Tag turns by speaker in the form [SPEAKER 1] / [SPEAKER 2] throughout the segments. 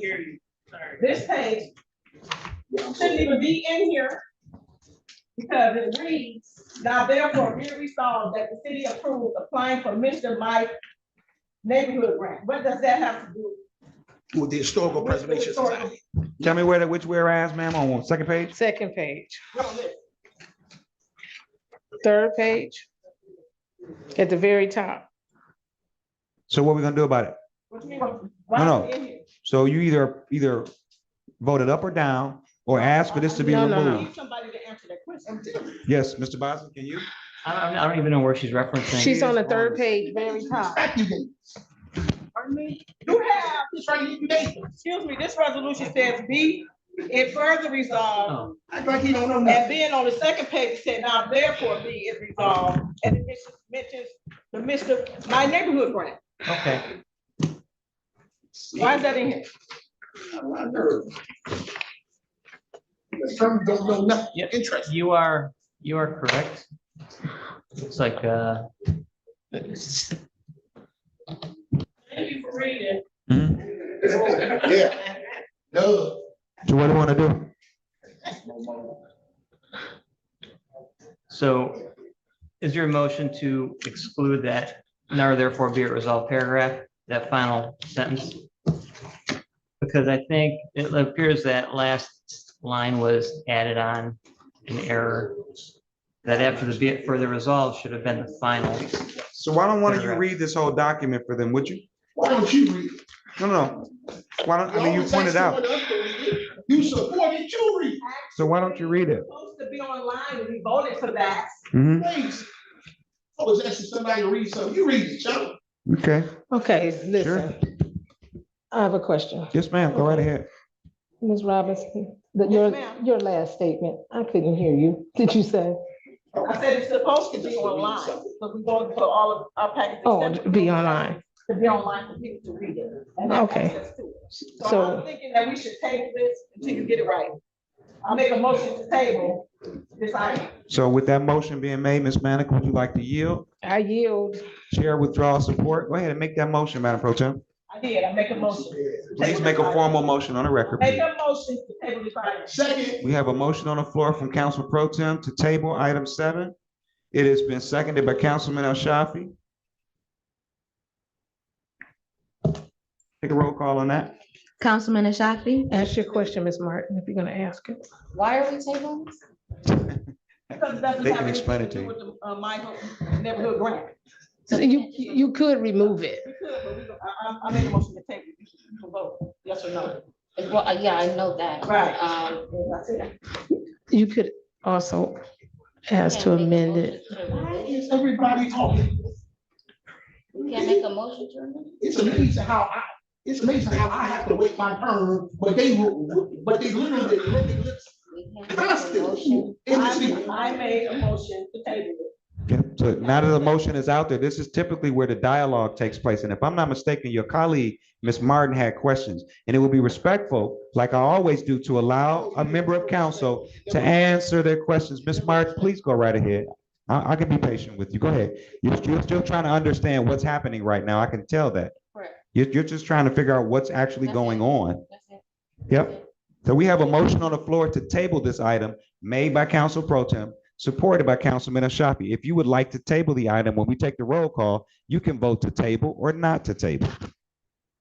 [SPEAKER 1] hear you, sorry.
[SPEAKER 2] This page shouldn't even be in here. Because it reads, now therefore be resolved that the city approves applying for Mr. Mike neighborhood grant. What does that have to do?
[SPEAKER 3] With the historical
[SPEAKER 2] with the
[SPEAKER 3] preservation
[SPEAKER 2] historical-
[SPEAKER 3] society.
[SPEAKER 4] Tell me where, the which whereas, ma'am, on what, second page?
[SPEAKER 5] Second page,
[SPEAKER 2] No, listen.
[SPEAKER 5] third page, at the very top.
[SPEAKER 4] So what we gonna do about it?
[SPEAKER 2] What you mean? Why is it in here?
[SPEAKER 4] So you either, either vote it up or down, or ask for this to be
[SPEAKER 5] No, no, no.
[SPEAKER 2] I
[SPEAKER 4] removed.
[SPEAKER 2] need Somebody to answer that question.
[SPEAKER 4] Yes, Mr. Boswell, can you?
[SPEAKER 6] I don't, I don't even know where she's referencing.
[SPEAKER 5] She's on the third page, very top.
[SPEAKER 2] Pardon me? You have, excuse me, this resolution says be it further resolved
[SPEAKER 6] Oh,
[SPEAKER 3] Act like he don't know
[SPEAKER 2] And
[SPEAKER 3] nothing.
[SPEAKER 2] then on the second page, it said, now therefore be it resolved, and it mentions the Mr. My Neighborhood Grant.
[SPEAKER 6] okay.
[SPEAKER 2] Why is that in here?
[SPEAKER 3] I heard. Some don't know nothing,
[SPEAKER 6] Yep.
[SPEAKER 3] interesting.
[SPEAKER 6] You are, you are correct. It's like, uh, it's-
[SPEAKER 1] Thank you for reading.
[SPEAKER 4] Mhm.
[SPEAKER 3] Yeah. No.
[SPEAKER 4] So what do you wanna do?
[SPEAKER 6] so is your motion to exclude that now therefore be it resolved paragraph, that final sentence? Because I think it appears that last line was added on in error. That after the be it further resolved should have been the final.
[SPEAKER 4] So why don't one of you read this whole document for them, would you?
[SPEAKER 3] Why don't you read? it?
[SPEAKER 4] No, no, no. why don't, I mean, you
[SPEAKER 3] Always ask
[SPEAKER 4] pointed out,
[SPEAKER 3] someone else to read it. You supported, you read.
[SPEAKER 4] so why don't you read it?
[SPEAKER 2] It's Supposed to be online, and we voted for that.
[SPEAKER 4] Mhm.
[SPEAKER 3] Thanks. I was asking somebody to read something. You read it, Joe.
[SPEAKER 4] Okay,
[SPEAKER 5] Okay, listen. I have a question.
[SPEAKER 4] yes, ma'am, go right ahead.
[SPEAKER 5] Ms. Robinson, that
[SPEAKER 2] Yes,
[SPEAKER 5] your,
[SPEAKER 2] ma'am.
[SPEAKER 5] your last statement, I couldn't hear you. Did you say?
[SPEAKER 2] I said it's supposed to be online, because we voted for all of our packages.
[SPEAKER 5] Oh, to be online.
[SPEAKER 2] To be online for people to read it. and have
[SPEAKER 5] Okay.
[SPEAKER 2] access to it. So I'm
[SPEAKER 5] So,
[SPEAKER 2] thinking that we should table this until you get it right. I make a motion to table this item.
[SPEAKER 4] So with that motion being made, Ms. Manica, would you like to yield?
[SPEAKER 5] I yield.
[SPEAKER 4] Chair withdraw support, go ahead and make that motion, Madam Pro Tem.
[SPEAKER 2] I did, I make a motion.
[SPEAKER 4] Please make a formal motion on the record.
[SPEAKER 2] Make
[SPEAKER 4] please.
[SPEAKER 2] a motion to table this item.
[SPEAKER 3] Second,
[SPEAKER 4] We have a motion on the floor from Council Pro Tem to table item seven. It has been seconded by Councilman El Shafi. Take a roll call on that.
[SPEAKER 7] Councilman Ashafi,
[SPEAKER 5] Ask your question, Ms. Martin, if you're gonna ask it.
[SPEAKER 7] why are we tabling? this?
[SPEAKER 2] Because it doesn't
[SPEAKER 4] They
[SPEAKER 2] have anything
[SPEAKER 4] can explain
[SPEAKER 2] to
[SPEAKER 4] it to
[SPEAKER 2] do
[SPEAKER 4] you.
[SPEAKER 2] with the, uh, Michael neighborhood grant.
[SPEAKER 5] So You, you could remove it.
[SPEAKER 2] We could, but we don't- I, I, I made a motion to table, it. you can- you can vote, yes or no.
[SPEAKER 7] Well, uh, yeah, I know that.
[SPEAKER 2] Right.
[SPEAKER 7] Um,
[SPEAKER 2] That's it.
[SPEAKER 5] You could also ask to
[SPEAKER 7] can't make a
[SPEAKER 5] amend it.
[SPEAKER 7] motion to
[SPEAKER 3] why
[SPEAKER 7] remove it.
[SPEAKER 3] is everybody talking?
[SPEAKER 7] Can't make a motion to remove it.
[SPEAKER 3] It's amazing how I, it's amazing how I have to wait my turn, but they, will- but they literally, literally
[SPEAKER 7] We can't make a
[SPEAKER 3] constantly.
[SPEAKER 7] motion.
[SPEAKER 3] in the city.
[SPEAKER 2] I, I made a motion to table it.
[SPEAKER 4] Yeah, So now that the motion is out there, this is typically where the dialogue takes place. And if I'm not mistaken, your colleague, Ms. Martin, had questions. And it would be respectful, like I always do, to allow a member of council to answer their questions. Ms. Martin, please go right ahead. I, I can be patient with you. Go ahead. You're, you're still trying to understand what's happening right now. I can tell that.
[SPEAKER 7] Correct.
[SPEAKER 4] You're, you're just trying to figure out what's actually going on.
[SPEAKER 7] That's it.
[SPEAKER 4] Yep. So we have a motion on the floor to table this item made by Council Pro Tem, supported by Councilman Ashafi. If you would like to table the item, when we take the roll call, you can vote to table or not to table.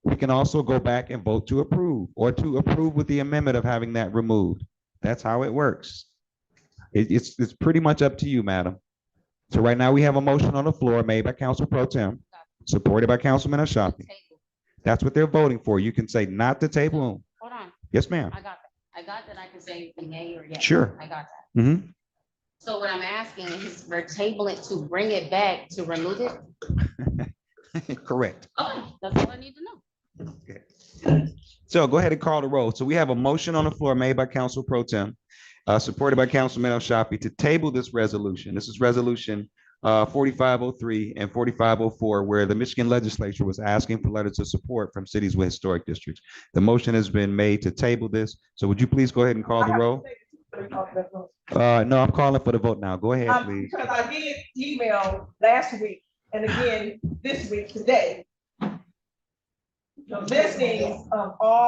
[SPEAKER 4] We can also go back and vote to approve or to approve with the amendment of having that removed. That's how it works. It- it's, it's pretty much up to you, madam. So right now, we have a motion on the floor made by Council Pro Tem, supported by Councilman Ashafi.
[SPEAKER 7] Table.
[SPEAKER 4] That's what they're voting for. You can say not to table.
[SPEAKER 7] Hold on,
[SPEAKER 4] Yes, ma'am.
[SPEAKER 7] I got that. I got that I can say nay or yes.
[SPEAKER 4] Sure.
[SPEAKER 7] I got that.
[SPEAKER 4] hmm
[SPEAKER 7] So what I'm asking is for table it to bring it back to remove it?
[SPEAKER 4] Correct.
[SPEAKER 7] Okay, that's all I need to know.
[SPEAKER 4] So go ahead and call the roll. So we have a motion on the floor made by Council Pro Tem, uh, supported by Councilman El Shafi to table this resolution. This is resolution uh, forty-five oh three and forty-five oh four, where the Michigan Legislature was asking for letters of support from cities with historic districts. The motion has been made to table this. So would you please go ahead and call the roll? Uh, no, I'm calling for the vote now. Go ahead,
[SPEAKER 2] Um,
[SPEAKER 4] please.
[SPEAKER 2] Because I did email last week and again this week today. The listings of um, all